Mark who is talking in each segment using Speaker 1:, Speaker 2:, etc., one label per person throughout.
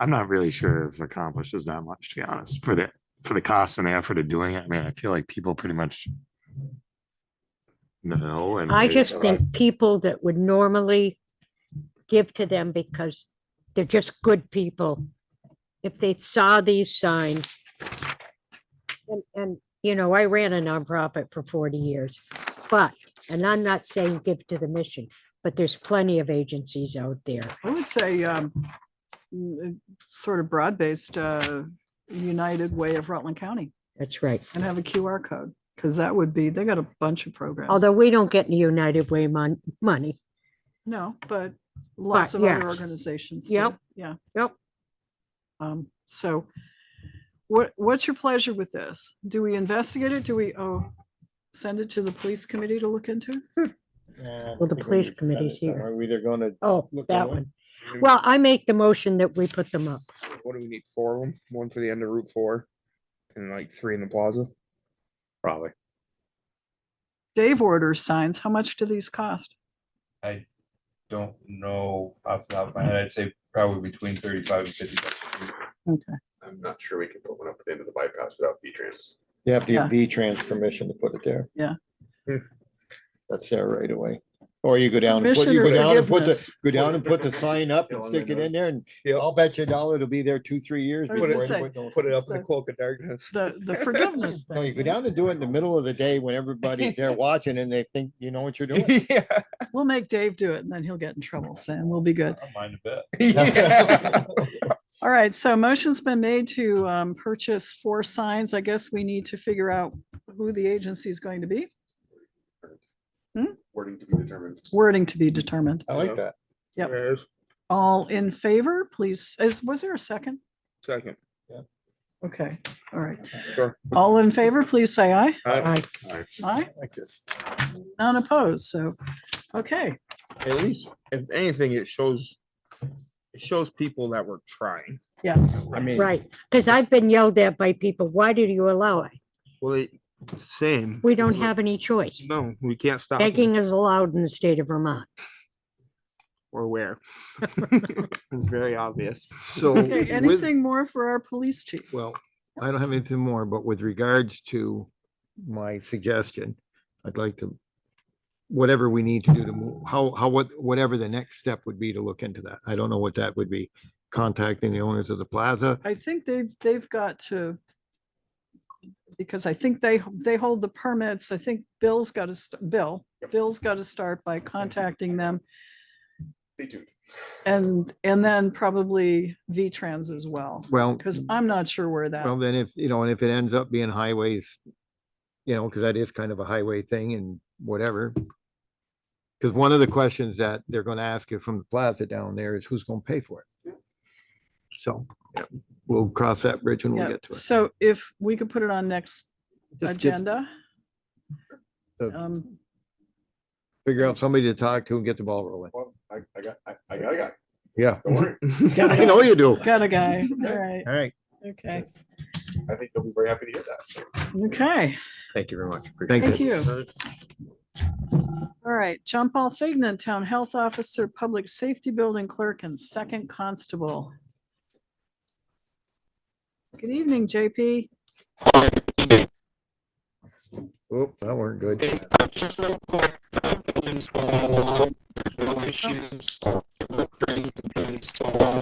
Speaker 1: I'm not really sure if accomplishes that much, to be honest, for the, for the cost and the effort of doing it. I mean, I feel like people pretty much know. and
Speaker 2: I
Speaker 1: they-
Speaker 2: just think people that would normally give to them because they're just good people. If they saw these signs. And, and, you know, I ran a nonprofit for forty years, but, and I'm not saying give to the mission, but there's plenty of agencies out there.
Speaker 3: I would say um, mm, sort of broad-based uh, United Way of Rutland County
Speaker 2: That's right.
Speaker 3: and have a QR code because that would be, they got a bunch of programs.
Speaker 2: Although we don't get any United Way mon- money.
Speaker 3: No, but lots
Speaker 2: But
Speaker 3: of other
Speaker 2: yes.
Speaker 3: organizations. do,
Speaker 2: Yep.
Speaker 3: Yeah.
Speaker 2: Yep.
Speaker 3: Um, So what, what's your pleasure with this? Do we investigate it? Do we, oh, send it to the police committee to look into?
Speaker 2: Well, the police committee's here.
Speaker 4: Are we either gonna,
Speaker 2: Oh,
Speaker 4: Look
Speaker 2: that
Speaker 4: at it.
Speaker 2: one. Well, I make the motion that we put them up.
Speaker 5: What do we need? Four of them? One for the end of Route Four and like three in the plaza? Probably.
Speaker 3: Dave orders signs. How much do these cost?
Speaker 6: I don't know off the top of my head. I'd say probably between thirty-five and fifty. bucks.
Speaker 3: Okay.
Speaker 7: I'm not sure we can put one up at the end of the bypass without V-Trans.
Speaker 4: you have to
Speaker 3: Yeah.
Speaker 4: get V-Trans permission to put it there.
Speaker 3: Yeah.
Speaker 5: Hmm.
Speaker 4: That's there right away. Or you go down, and put-
Speaker 3: Permission
Speaker 4: you
Speaker 3: or
Speaker 4: go down and put the,
Speaker 3: forgiveness?
Speaker 4: go down and put the sign up and
Speaker 7: Telling
Speaker 4: stick it
Speaker 7: them
Speaker 4: in there and
Speaker 5: Yeah.
Speaker 4: I'll bet you a dollar it'll be there two, three years.
Speaker 3: I was
Speaker 4: before
Speaker 3: gonna say,
Speaker 4: anyone knows.
Speaker 5: Put it up
Speaker 3: It's
Speaker 5: in the
Speaker 3: the-
Speaker 5: cloak of darkness.
Speaker 3: The, the forgiveness thing.
Speaker 4: No, you go
Speaker 3: right?
Speaker 4: down and do it in the middle of the day when everybody's there watching and they think you know what you're doing.
Speaker 5: Yeah.
Speaker 3: We'll make Dave do it and then he'll get in trouble, Sam. We'll be
Speaker 6: I
Speaker 3: good.
Speaker 6: don't mind a bit.
Speaker 5: Yeah.
Speaker 3: All right, so motion's been made to um, purchase four signs. I guess we need to figure out who the agency is going to be. Hmm?
Speaker 7: Wording to be determined.
Speaker 3: Wording to be determined.
Speaker 4: I
Speaker 5: Yeah.
Speaker 4: like that.
Speaker 3: Yep.
Speaker 5: There's
Speaker 3: All in favor, please. Is, was there a second?
Speaker 5: Second.
Speaker 3: Okay, all right.
Speaker 5: Sure.
Speaker 3: All in favor, please say aye.
Speaker 5: Uh,
Speaker 2: I,
Speaker 3: Aye,
Speaker 4: I like this.
Speaker 3: none opposed. So, okay,
Speaker 5: At least, if anything, it shows, it shows people that we're trying.
Speaker 3: yes.
Speaker 5: I mean,
Speaker 2: right, because I've been yelled at by people, why did you allow it?
Speaker 5: well, it, same.
Speaker 2: We don't have any choice.
Speaker 5: No, we can't stop. them.
Speaker 2: Begging is allowed in the state of Vermont.
Speaker 5: or where. Very obvious. So
Speaker 3: Okay, anything more for our police chief?
Speaker 4: Well, I don't have anything more, but with regards to my suggestion, I'd like to, whatever we need to do to move, how, how, what, whatever the next step would be to look into that. I don't know what that would be. Contacting the owners of the plaza.
Speaker 3: I think they've, they've got to, because I think they, they hold the permits. I think Bill's got to, Bill, Bill's got to start by contacting them
Speaker 7: Stay tuned.
Speaker 3: and, and then probably V-Trans as well,
Speaker 4: Well,
Speaker 3: because I'm not sure where that,
Speaker 4: well, then if, you know, and if it ends up being highways, you know, because that is kind of a highway thing and whatever. Because one of the questions that they're going to ask you from the plaza down there is who's going to pay for it? So yeah, we'll cross that bridge when we
Speaker 3: yeah.
Speaker 4: get to it.
Speaker 3: So if we could put it on next
Speaker 4: Just get-
Speaker 3: agenda.
Speaker 4: So-
Speaker 3: Um,
Speaker 4: Figure out somebody to talk to and get the ball rolling.
Speaker 7: Well, I, I got, I, I got a guy.
Speaker 4: Yeah.
Speaker 7: Don't worry.
Speaker 4: I know you do.
Speaker 3: Got a guy. All right.
Speaker 4: All right.
Speaker 3: Okay.
Speaker 7: I think they'll be very happy to hear that.
Speaker 3: Okay.
Speaker 5: Thank you very much.
Speaker 3: Thank
Speaker 4: Thank you.
Speaker 3: you. All right. John Paul Fignan, Town Health Officer, Public Safety Building Clerk and Second Constable. Good evening, JP.
Speaker 4: Oop, that weren't good.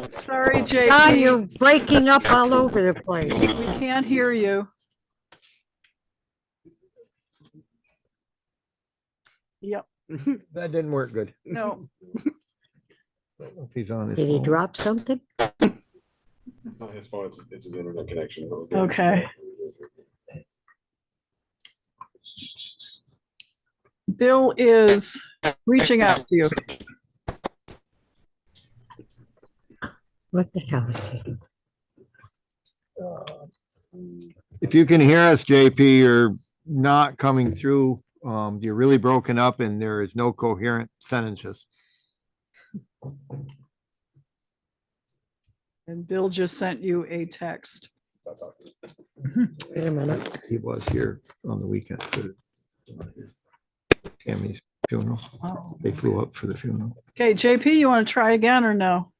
Speaker 3: Sorry,
Speaker 2: Ah, you're
Speaker 3: JP.
Speaker 2: breaking up all over the place.
Speaker 3: We can't hear you. Yep.
Speaker 4: That didn't work good.
Speaker 3: No.
Speaker 4: I don't know If he's on his
Speaker 2: Did he
Speaker 4: phone.
Speaker 2: drop something?
Speaker 7: It's not his phone, it's, it's his internet connection.
Speaker 3: Okay. Bill is reaching out to you.
Speaker 2: What the hell is it?
Speaker 4: If you can hear us, JP, you're not coming through. Um, you're really broken up and there is no coherent sentences.
Speaker 3: And Bill just sent you a text.
Speaker 2: Wait a minute.
Speaker 4: He was here on the weekend. for Tammy's funeral.
Speaker 3: Oh.
Speaker 4: They flew up for the funeral.
Speaker 3: Okay, JP, you want to try again or no?